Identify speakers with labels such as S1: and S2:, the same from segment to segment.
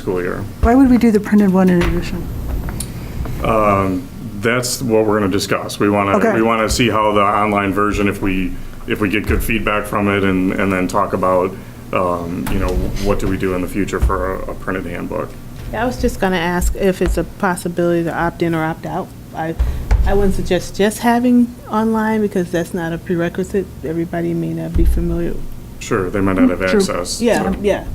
S1: school year.
S2: Why would we do the printed one in addition?
S1: Um, That's what we're going to discuss. We want to,
S2: Okay.
S1: we want to see how the online version, if we, if we get good feedback from it, and, and then talk about, um, you know, what do we do in the future for a- a printed handbook?
S3: I was just going to ask if it's a possibility to opt in or opt out. I, I wouldn't suggest just having online because that's not a prerequisite. Everybody may not be familiar.
S1: Sure, they might not have access.
S3: Yeah,
S1: so-
S3: yeah.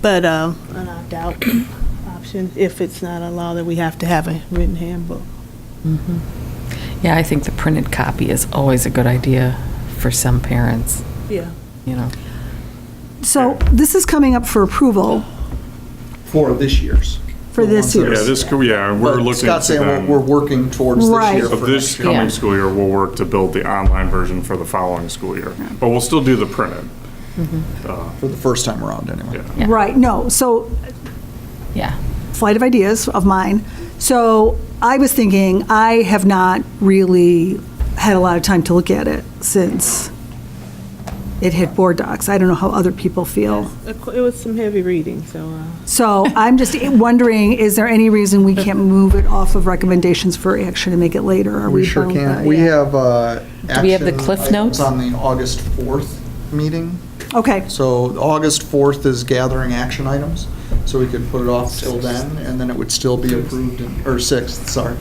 S3: But um, an opt out option if it's not a law that we have to have a written handbook.
S4: Yeah, I think the printed copy is always a good idea for some parents,
S3: Yeah.
S4: you know.
S2: So this is coming up for approval
S5: for this year's.
S2: for this
S5: The ones
S2: year.
S5: that-
S1: Yeah, this, school- yeah, we're
S5: But
S1: looking to
S5: Scott's saying
S1: them-
S5: we're, we're working towards this
S2: Right.
S5: year.
S1: Of
S5: for
S1: this
S5: next year.
S1: coming
S4: Yeah.
S1: school year, we'll work to build the online version for the following school year. But we'll still do the printed.
S5: For the first time around, anyway.
S1: Yeah.
S2: Right, no, so
S4: Yeah.
S2: flight of ideas of mine. So I was thinking, I have not really had a lot of time to look at it since it hit board docs. I don't know how other people feel.
S3: It was some heavy reading, so. uh,
S2: So I'm just wondering, is there any reason we can't move it off of recommendations for action and make it later? Are
S5: We sure
S2: bound by-
S5: can. We have, uh.
S4: Do we have the
S5: action
S4: Cliff
S5: items
S4: Notes?
S5: On the August 4th meeting.
S2: Okay,
S5: So August 4th is gathering action items, so we could put it off till then, and then it would still be approved, in- or 6th, sorry.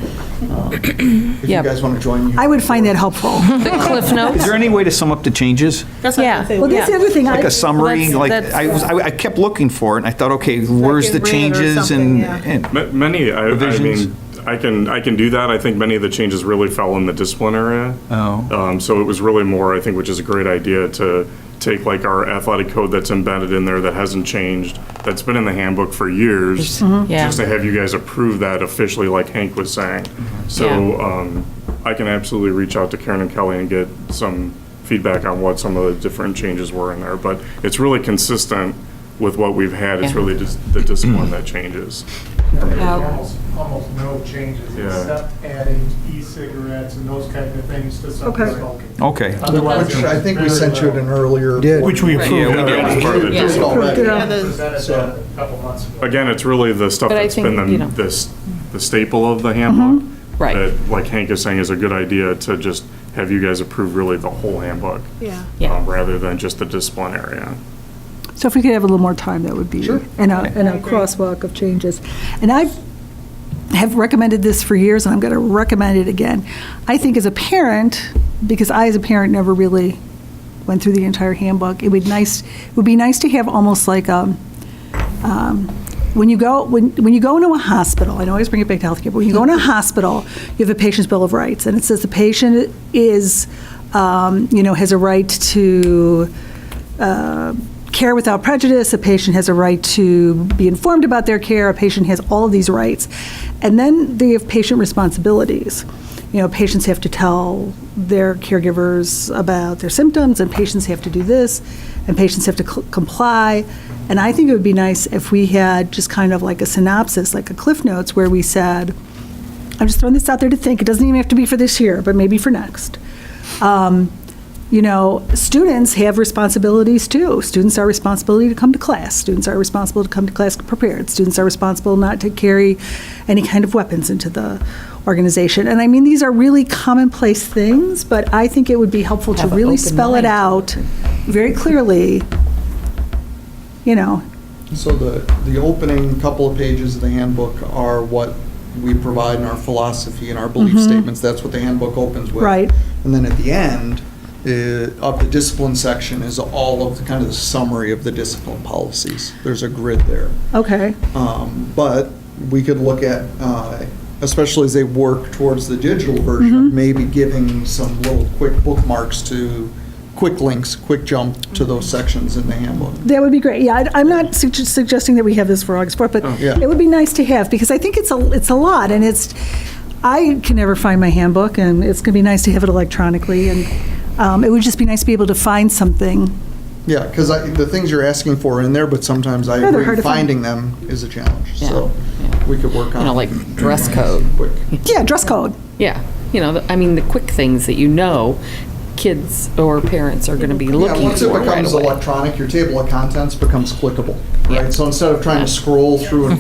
S5: Um, If you
S4: Yeah.
S5: guys want to join. you-
S2: I would find that helpful.
S4: The Cliff Notes?
S6: Is there any way to sum up the changes?
S3: That's what I was gonna say.
S2: Well, that's the other thing. I
S6: Like a summary?
S4: that's-
S6: Like,
S4: that's-
S6: I was, I I kept looking for it, and I thought, okay, where's
S3: in
S6: the
S3: red or
S6: changes
S3: something,
S6: and,
S3: yeah.
S6: and-
S1: Ma- Many, I, I
S6: Revisions?
S1: mean, I can, I can do that. I think many of the changes really fell in the discipline area.
S6: Oh.
S1: Um, so it was really more, I think, which is a great idea to take like our athletic code that's embedded in there that hasn't changed, that's been in the handbook for years.
S4: Yeah.
S1: Just to have you guys approve that officially, like Hank was saying. So,
S4: Yeah.
S1: um, I can absolutely reach out to Karen and Kelly and get some feedback on what some of the different changes were in there. But it's really consistent with what we've had. It's
S4: Yeah.
S1: really just the discipline that changes.
S7: Almost, almost no changes
S1: Yeah.
S7: except adding e-cigarettes and those kind of things to some
S2: Okay.
S7: smoking.
S6: okay.
S7: Otherwise,
S5: Which I think we
S7: very
S5: sent you
S7: little.
S5: an earlier.
S6: Which we
S4: Right.
S6: approved.
S1: Yeah, we did. It's part of the
S5: We did
S1: discipline.
S5: already.
S2: Yeah.
S7: Presented that a couple months ago.
S1: Again, it's really the stuff
S4: But I
S1: that's been
S4: think, you know. Mm-hmm.
S1: the, this, the staple of the handbook.
S4: Right.
S1: That, like Hank is saying, is a good idea to just have you guys approve really the whole handbook.
S3: Yeah.
S4: Yeah.
S1: um, Rather than just the discipline area.
S2: So if we could have a little more time, that would be, and a, and a uh, crosswalk of changes. And I have recommended this for years, and I'm going to recommend it again. I think as a parent, because I as a parent never really went through the entire handbook, it would nice, it would be nice to have almost like a, um, when you go, when, when you go into a hospital, I know I always bring it back to healthcare, but when you go into a hospital, you have a patient's bill of rights, and it says the patient is, um, you know, has a right to uh, care without prejudice, a patient has a right to be informed about their care, a patient has all of these rights. And then they have patient responsibilities. You know, patients have to tell their caregivers about their symptoms, and patients have to do this, and patients have to cl- comply. And I think it would be nice if we had just kind of like a synopsis, like a Cliff Notes, where we said, I'm just throwing this out there to think. It doesn't even have to be for this year, but maybe for next. Um, You know, students have responsibilities too. Students are responsible to come to class. Students are responsible to come to class prepared. Students are responsible not to carry any kind of weapons into the organization. And I mean, these are really commonplace things, but I think it would be helpful to
S4: Have an
S2: really
S4: open
S2: spell it
S4: mind.
S2: out very clearly, you know,
S5: So the, the opening couple of pages of the handbook are what we provide in our philosophy and our belief statements. That's what the handbook opens with.
S2: Right.
S5: And then at the end uh, of the discipline section is all of the kind of the summary of the discipline policies. There's a grid there.
S2: okay.
S5: Um, But we could look at, uh, especially as they work towards the digital version, maybe giving some little quick bookmarks to, quick links, quick jump to those sections in the handbook.
S2: That would be great. Yeah, I- I'm not sug- suggesting that we have this for August 4th, but
S5: Yeah.
S2: it would be nice to have, because I think it's a, it's a lot, and it's, I can never find my handbook, and it's going to be nice to have it electronically, and um, it would just be nice to be able to find something.
S5: Yeah, because the things you're asking for are in there, but sometimes I
S2: Yeah, they're hard
S5: agree,
S2: to find.
S5: finding them is a challenge.
S4: Yeah,
S5: So
S4: yeah.
S5: we could work on.
S4: You know, like dress code.
S5: Quick.
S2: Yeah, dress code.
S4: Yeah, you know, I mean, the quick things that you know kids or parents are going to be
S5: Yeah,
S4: looking
S5: once it
S4: for right
S5: becomes
S4: away.
S5: electronic, your table of contents becomes clickable,
S4: Yeah.
S5: right? So instead of trying to scroll through and